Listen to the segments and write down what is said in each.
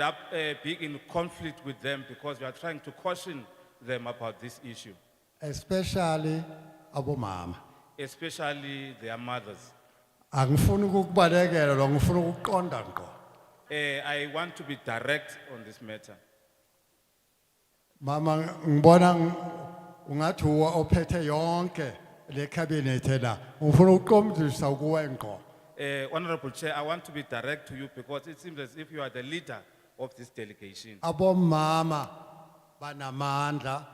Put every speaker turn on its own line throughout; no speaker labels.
that, uh, be in conflict with them because we are trying to caution them about this issue,
especially abomama
especially their mothers.
angifuni ukukubalekela lo ngifuna ukuqonda ngqo
Uh, I want to be direct on this matter.
mama ngibona ng- ungathi uwa ophethe yonke le cabinet la ngifuna ukuqomdisa ukuwe ngqo
Uh, Honorable Chair, I want to be direct to you because it seems as if you are the leader of this delegation.
abomama banamandla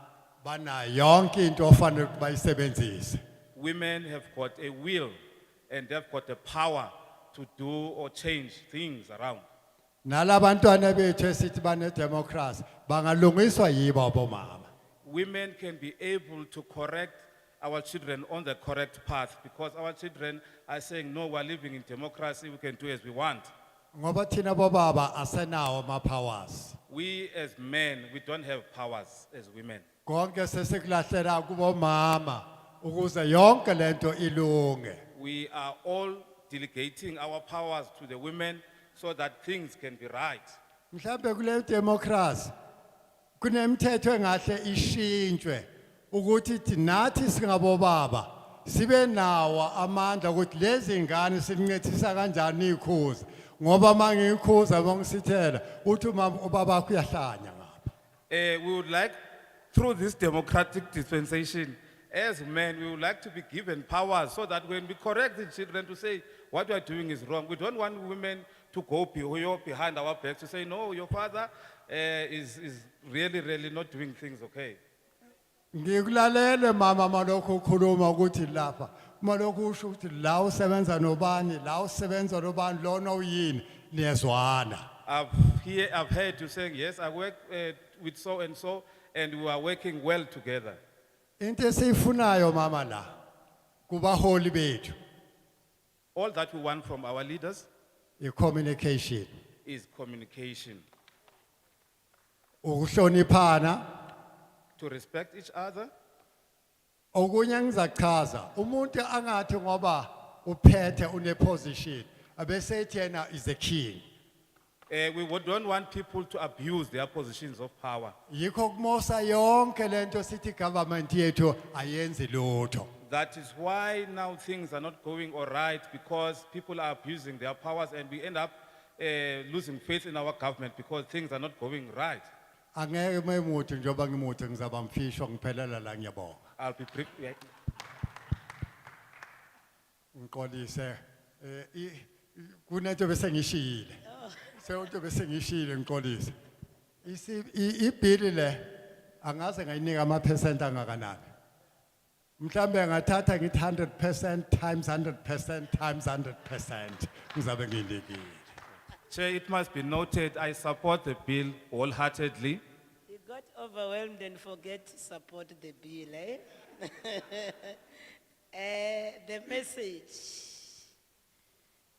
bana yonke into ofanele ukubayisebenzise
Women have got a will and they've got the power to do or change things around.
nalabantwana bethu esithi bane democracy bangalungiswa yibo abomama
Women can be able to correct our children on the correct path because our children are saying, no, we're living in democracy, we can do as we want.
ngoba thina bobaba asenawo ama powers
We as men, we don't have powers as women.
konke sesekulahlela kubomama ukuze yonke lento ilunge
We are all delegating our powers to the women so that things can be right.
mhlambe kule democracy kunemithetho engahle ishintshwe ukuthi thi- nathi singabobaba sibe nawo amandla ukuthi lezi ngane sincethisa kanjani ikhuza ngoba mangikhuza bangisithela uthi mama ubaba wakho uyahlanya ngapha
Eh, we would like, through this democratic dispensation, as men, we would like to be given powers so that when we correct the children to say what we are doing is wrong, we don't want women to go beho- behind our backs to say, no, your father eh, is, is really, really not doing things okay.
ngikulalele mama malokho ukhuluma ukuthi lapha malokho usho ukuthi la usebenza nobani la usebenza nobani lona uyini niyezwana
I've hear, I've heard you saying, yes, I work eh, with so and so, and we are working well together.
into esiyifunayo mama la kubaholi bethu
All that we want from our leaders
i-communication
is communication,
ukuhloniphana
to respect each other.
okunye ngizachaza umuntu angathi ngoba uphethe uneposition abese ethi yena is a king
Eh, we would- don't want people to abuse their positions of power.
yikho kumosa yonke lento sithi government yethu ayenzi lutho
That is why now things are not going all right because people are abusing their powers and we end up eh, losing faith in our government because things are not going right.
angeke memuthi njengoba ngimuthi ngizaba mfisho ngiphelela la ngiyabonga
I'll be brief. yeah.
ngiqolise eh, i- i- kunento bese ngishile sewonto bese ngishile ngiqolise Isi- i- ibhili le angaze ngayinika amaphesenti angakanani mhlambe ngathatha ngithi 100% times 100% times 100% ngizabe ngiyinikile
Chair, it must be noted, I support the bill wholeheartedly.
You got overwhelmed and forget to support the bill, eh? Eh, the message.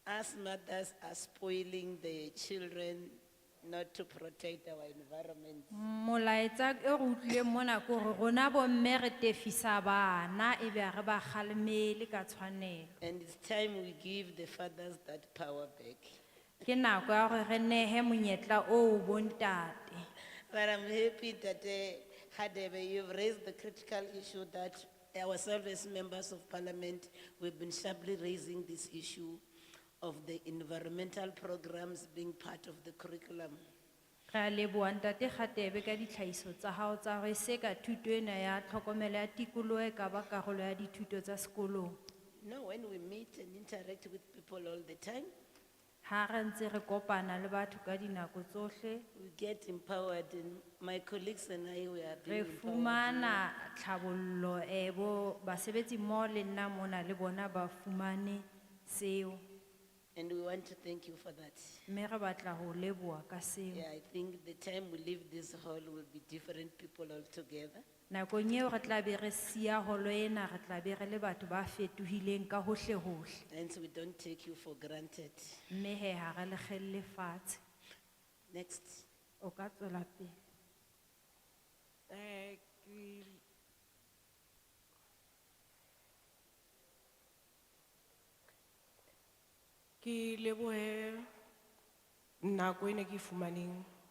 Us mothers are spoiling the children not to protect our environment.
molaetsa e re utlwileng mona ke gore rona bomme re tefisa bana e be a re ba galemele ka tshwanelo
And it's time we give the fathers that power back.
ke nako ya gore re nehe monyetla oo bontate
But I'm happy that, eh, Hadebe, you've raised the critical issue that ourselves as members of parliament, we've been sharply raising this issue of the environmental programs being part of the curriculum.
re a leboa ntate gatebe ka ditlhagiso tsa gago tsa gore se ka thuto ena ya tlhokomelo ya tikologo e ka ba karolo ya dithuto tsa sekolong
No, when we meet and interact with people all the time,
ga re ntse re kopana le batho ka dinako tsotlhe
we get empowered and my colleagues and I, we are
re
being empowered.
fumana tlhabololo um bo basebetsi mmoho le nna mona le bona ba fumane seo
And we want to thank you for that.
mme re batla go leboa ka seo
Yeah, I think the time we leave this hall will be different people altogether.
nakong eo re tla be re sia golo ena re tla be re le batho ba fetogileng ka gotlhe-gotlhe
And so we don't take you for granted.
mme he ga re legelele fatshe
Next.
o ka tswela pele
Eh, ke- Ke lebohe nako e ne ke e fumaneng